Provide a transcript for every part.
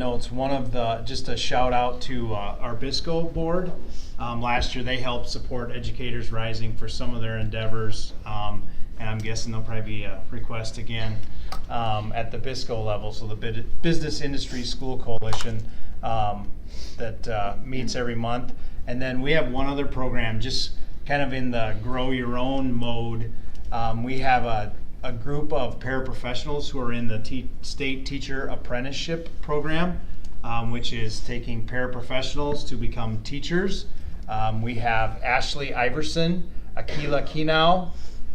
notes, one of the, just a shout out to uh, our BISCO board. Um, Last year, they helped support Educators Rising for some of their endeavors. um, And I'm guessing there'll probably be a request again um, at the BISCO level, so the Bid- Business Industry School Coalition um, that uh, meets every month. And then we have one other program, just kind of in the grow your own mode. Um, we have a, a group of paraprofessionals who are in the te- state teacher apprenticeship program, um, which is taking paraprofessionals to become teachers. Um, we have Ashley Iverson, Akila Kinau,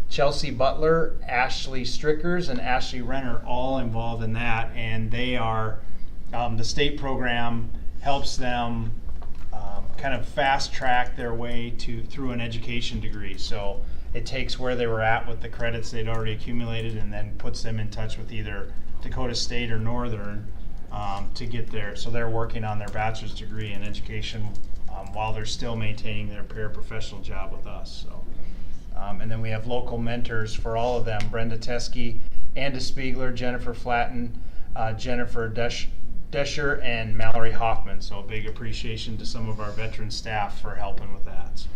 Chelsea Butler, Ashley Strickers, and Ashley Renner all involved in that. And they are, um, the state program helps them um, kind of fast track their way to through an education degree. So it takes where they were at with the credits they'd already accumulated and then puts them in touch with either Dakota State or Northern um, to get there. So they're working on their bachelor's degree in education um, while they're still maintaining their paraprofessional job with us. So. Um, and then we have local mentors for all of them Brenda Teske, Anda Spiegler, Jennifer Flatten, uh, Jennifer Desch- Descher, and Mallory Hoffman. So a big appreciation to some of our veteran staff for helping with that. So,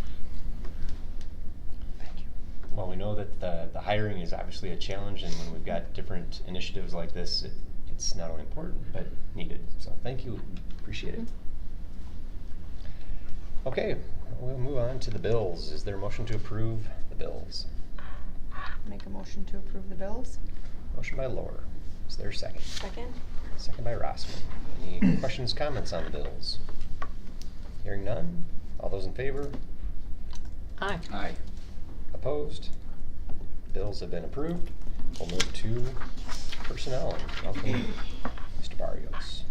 Thank you. Well, we know that the, the hiring is obviously a challenge, and when we've got different initiatives like this, it, it's not only important, but needed. So thank you, appreciate it. Okay, we'll move on to the bills. Is there a motion to approve the bills? Make a motion to approve the bills. Motion by Laura. Is there a second? Second. Second by Rossman. Any questions, comments on the bills? Hearing none. All those in favor? Aye. Aye. Opposed? Bills have been approved. We'll move to personnel. Welcome, Mr. Barrios.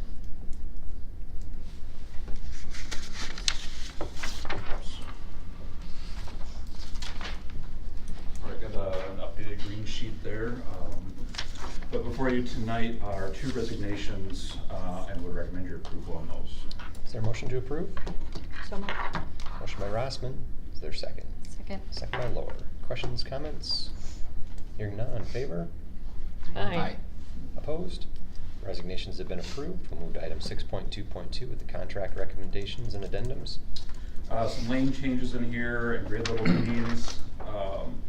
I got a- an updated green sheet there. um, But before you tonight are two resignations, uh, and would recommend your approval on those. Is there a motion to approve? So moved. Motion by Rossman. Is there a second? Second. Second by Lower. Questions, comments? Hearing none, in favor? Opposed? Resignations have been approved. We'll move to item six point two point two with the contract recommendations and addendums. Uh, some lane changes in here and grade level means. Um,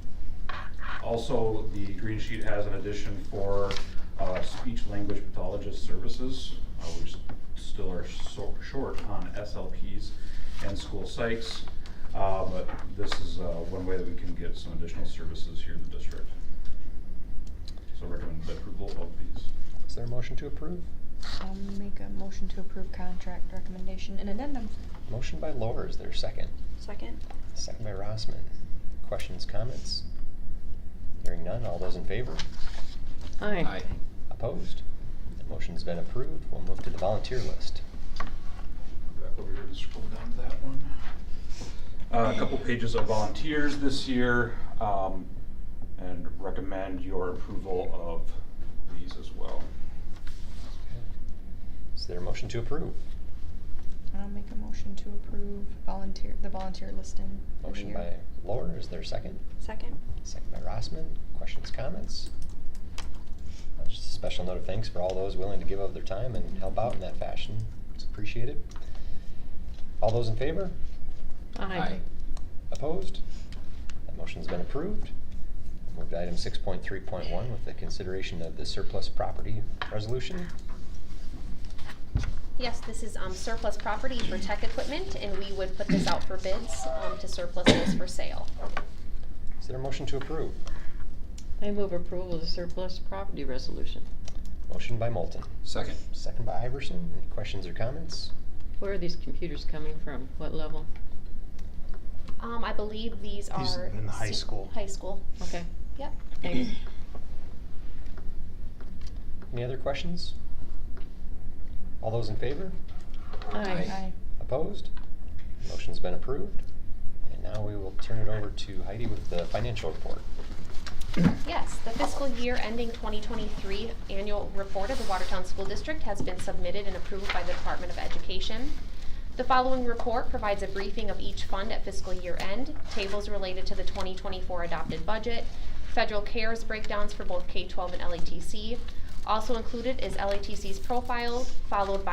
also, the green sheet has an addition for, uh, speech language pathologist services, uh, which still are so, short on SLPs and school psychs. Uh, but this is, uh, one way that we can get some additional services here in the district. So recommend the approval of these. Is there a motion to approve? I'll make a motion to approve contract recommendation and addendum. Motion by Lower. Is there a second? Second. Second by Rossman. Questions, comments? Hearing none, all those in favor? Aye. Opposed? The motion's been approved. We'll move to the volunteer list. back over here to scroll down to that one. Uh, a couple pages of volunteers this year, um, and recommend your approval of these as well. Is there a motion to approve? I'll make a motion to approve volunteer, the volunteer listing. for the Motion year. by Lower, is there a second? Second. Second by Rossman. Questions, comments? Uh, Just a special note of thanks for all those willing to give of their time and help out in that fashion. It's appreciated. All those in favor? Opposed? That motion's been approved. Move to item six point three point one with the consideration of the surplus property resolution. Yes, this is um, surplus property for tech equipment, and we would put this out for bids um, to surplus those for sale. Is there a motion to approve? I move approval of the surplus property resolution. Motion by Moulton, Second. second by Iverson. Any questions or comments? Where are these computers coming from? What level? Um, I believe these are. These in the high se- school. High school, Okay, yep. thanks. Any other questions? All those in favor? Aye. Aye. Opposed? Motion's been approved. And now we will turn it over to Heidi with the financial report. Yes, the fiscal year ending 2023 annual report of the Watertown School District has been submitted and approved by the Department of Education. The following report provides a briefing of each fund at fiscal year end, tables related to the 2024 adopted budget, federal CARES breakdowns for both K-12 and LATC. Also included is LATC's profile, followed by